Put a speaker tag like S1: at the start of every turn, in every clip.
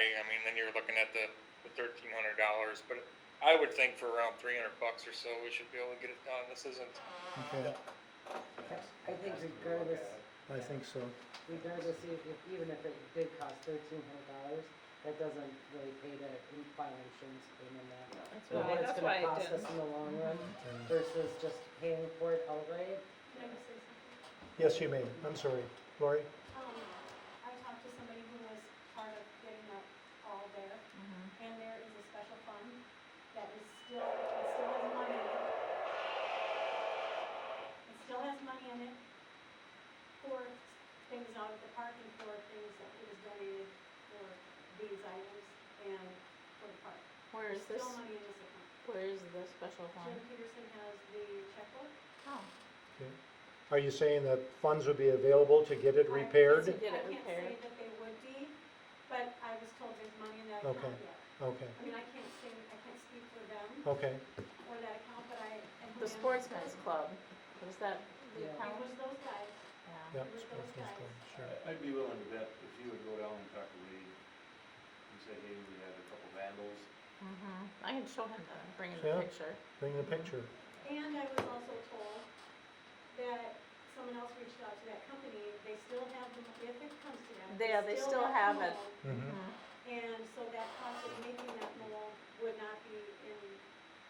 S1: and then you're looking at the, the thirteen hundred dollars, but I would think for around three hundred bucks or so, we should be able to get it done, this isn't,
S2: okay,
S3: I think regardless,
S2: I think so.
S3: regardless, e- if- even if it did cost thirteen hundred dollars, that doesn't really pay to in- file insurance claim on that.
S4: That's
S3: But
S4: why,
S3: what it's
S4: that's why
S3: gonna
S4: it
S3: cost us
S4: didn't.
S3: in the long run
S2: And-
S3: versus just paying for it outright.
S5: Can I just say something?
S2: Yes, you may, I'm sorry, Lori?
S5: Um, I talked to somebody who was part of getting that all there,
S4: Mm-hmm.
S5: and there is a special fund that is still, it still has money in it. It still has money in it for things out at the park and for things that it was donated for these items and for the park.
S4: Where is this,
S5: There's Still money in this account.
S4: where is the special
S5: Jim
S4: fund?
S5: Peterson has the checkbook.
S4: Oh.
S2: Are you saying that funds would be available to get it repaired?
S4: To get it
S5: I can't say
S4: repaired.
S5: that they would be, but I was told there's money in that account
S2: Okay.
S5: yet.
S2: Okay,
S5: I mean, I can't say, I can't speak for them
S2: okay,
S5: or that account, but I. and
S4: The
S5: whoever-
S4: sportsman's club, was that the
S3: Yeah.
S5: It
S4: account?
S5: was those guys.
S4: Yeah.
S2: yeah, sportsman's club, sure.
S6: I- I'd be willing to bet if you would go down and talk to Wade and say, hey, we had a couple vandals.
S4: Mhm. I can show him the, bring him
S2: Yeah.
S4: the picture.
S2: Bring the picture,
S5: And I was also told that someone else reached out to that company. They still have the, mo- if it comes to that.
S4: Yeah, they still have it.
S5: the mold.
S2: mm-hmm,
S4: Mhm.
S5: And so that cost of making that mold would not be in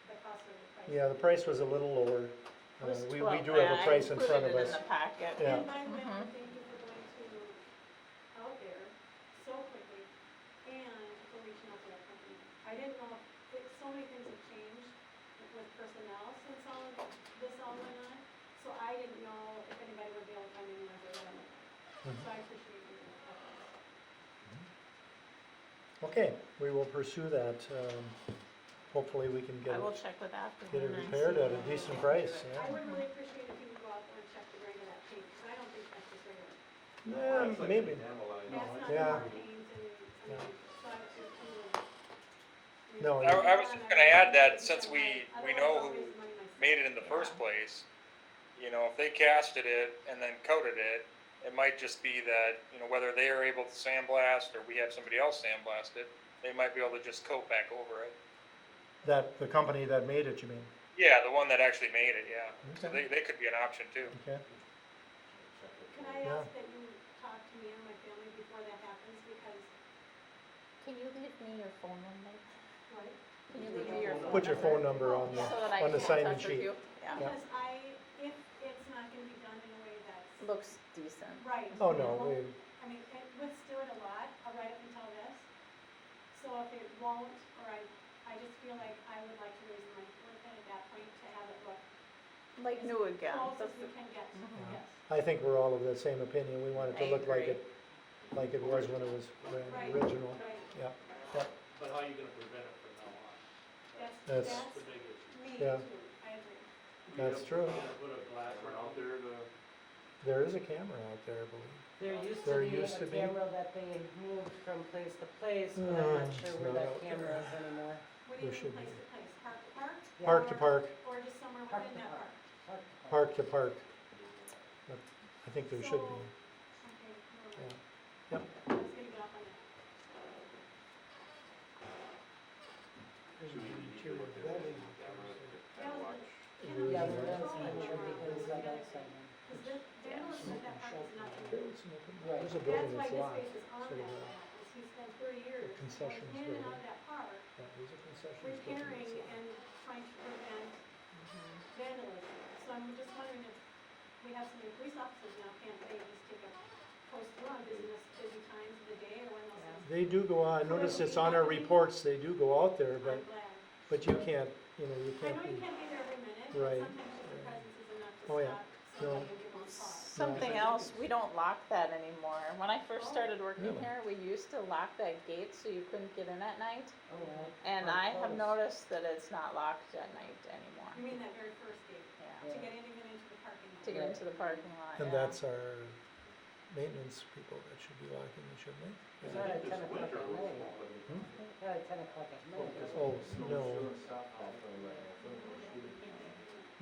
S5: the cost of the price.
S2: yeah, the price was a little lower,
S4: It
S2: uh,
S4: was
S2: we, we
S4: twelve,
S2: do
S4: but
S2: have a
S4: I
S2: price in front of
S4: included it
S2: us.
S4: in the packet.
S2: Yeah.
S5: And by the way,
S4: Mhm.
S5: thank you for going to, out there so quickly and for reaching out to that company. I didn't know, if- it, so many things have changed with personnel since all of this all went on. So I didn't know if anybody would be able to find anyone to them. So I appreciate your efforts.
S2: Okay, we will pursue that, um, hopefully we can get
S4: I will
S2: it,
S4: check with Afton.
S2: get it
S4: and see
S2: repaired at a
S4: when they
S2: decent
S4: can do
S2: price,
S4: it.
S2: yeah.
S5: I would really appreciate if you would go out there and check the grain of that paint, because I don't think that's just regular.
S2: Yeah,
S6: It's like
S2: maybe.
S6: vandalized.
S5: That's not
S2: yeah.
S5: more paint and, I mean, so I would just really.
S2: No,
S5: really-
S2: you-
S1: I- I was just gonna add that since we- we know who
S5: Otherwise, I'll raise money myself.
S1: made it in the first place. You know, if they casted it and then coated it, it might just be that, you know, whether they are able to sandblast or we have somebody else sandblast it, they might be able to just coat back over it.
S2: that, the company that made it, you mean,
S1: Yeah, the one that actually made it, yeah. So
S2: Okay.
S1: they, they could be an option too.
S2: okay?
S5: Can I ask that you talk to me and my family before that happens, because,
S4: Can you leave me your phone number?
S5: what?
S4: Can you leave me your phone number?
S2: Put your phone number on the,
S4: So that I
S2: on
S4: can
S2: the
S4: get in
S2: sign-in
S4: touch with
S2: sheet.
S4: you. Yeah,
S5: Because I, if it's not gonna be done in a way that's
S4: looks decent.
S5: right.
S2: Oh,
S5: and it
S2: no, we,
S5: won't- I mean, it withstood a lot, uh, right up until this, so if it won't, or I, I just feel like I would like to raise money for it at that point to have it look
S4: Like new again.
S5: close
S4: That's
S5: as
S4: the-
S5: we can get,
S4: Mhm.
S5: yes.
S2: I think we're all of the same opinion, we want it to
S4: I
S2: look like
S4: agree.
S2: it, like it was when it was ran-
S5: Right.
S2: original,
S5: Right,
S2: yeah,
S7: But how are you gonna prevent it from now on?
S5: that's,
S2: That's-
S5: that's
S7: That's the big issue.
S5: me too,
S2: Yeah.
S5: I agree.
S2: That's
S7: You're
S2: true.
S7: gonna put a glass around there to.
S2: there is a camera out there, I believe.
S3: There used
S2: There
S3: to be
S2: used to
S3: a
S2: be.
S3: camera that they moved from place to place, but I'm
S2: Mm,
S3: not sure
S2: it's
S3: where
S2: not
S3: that
S2: out
S3: camera is anymore.
S5: What do
S2: There
S5: you
S2: should
S5: mean place
S2: be.
S5: to place, park to park,
S3: Yeah.
S2: Park to park,
S5: or just somewhere
S3: Park
S5: within
S3: to
S5: that
S3: park.
S5: park?
S2: park to park, But I think there should be,
S5: Okay, never
S2: Yeah.
S5: mind.
S2: Yep.
S5: I was gonna get off on that.
S6: Should we need to look at it with the camera to kind of watch?
S5: Can we
S2: Yeah.
S3: Yeah, we're gonna
S5: control it
S3: make sure
S5: more?
S3: because
S5: That's
S3: that
S5: the other
S3: outside.
S5: thing. 'Cause the, the analyst said that park is not gonna be-
S2: there's a
S5: That's
S2: building
S5: why
S2: that's
S5: this
S2: locked,
S5: space is on
S2: so we
S5: that,
S2: have-
S5: map, is he spent thirty years going
S2: concessions
S5: in and
S2: building.
S5: out of that park,
S2: that is a concession stand.
S5: repairing and trying to prevent
S4: Mm-hmm.
S5: vandalism. So I'm just wondering if we have so many police officers now, can't they just take a post run business, busy times of the day or when those things?
S2: They do go on, notice it's on our reports, they do go out there, but,
S5: I'm glad.
S2: but you can't, you know, you
S5: I
S2: can't
S5: know you
S2: be,
S5: can't be there every minute,
S2: Right.
S5: but sometimes just the presence is enough to
S2: Oh, yeah.
S5: stop somebody
S2: No.
S5: and give them a pause.
S4: Something else, we don't lock that anymore. When I first
S5: Oh.
S4: started working
S2: Really?
S4: here, we used to lock that gate so you couldn't get in at night.
S3: Oh, well.
S4: And
S3: Or
S4: I have
S3: close.
S4: noticed that it's not locked at night
S5: You
S4: anymore.
S5: mean that very first gate,
S4: Yeah,
S5: to get anyone into the parking lot?
S4: to get into the parking lot, yeah.
S2: and that's our maintenance people that should be locking, it, shouldn't
S3: It's
S2: they?
S3: not
S2: Yeah.
S3: at
S6: This
S3: ten o'clock
S6: winter
S3: at
S6: we'll
S3: night,
S6: open it.
S3: not at ten o'clock at night.
S2: Oh, no,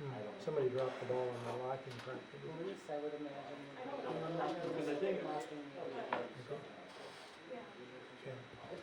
S6: Well,
S2: Hmm. somebody dropped the ball on the locking part.
S3: Police, I would imagine.
S5: I don't know.
S3: would imagine
S7: Because I think-
S3: locking it.
S2: Okay.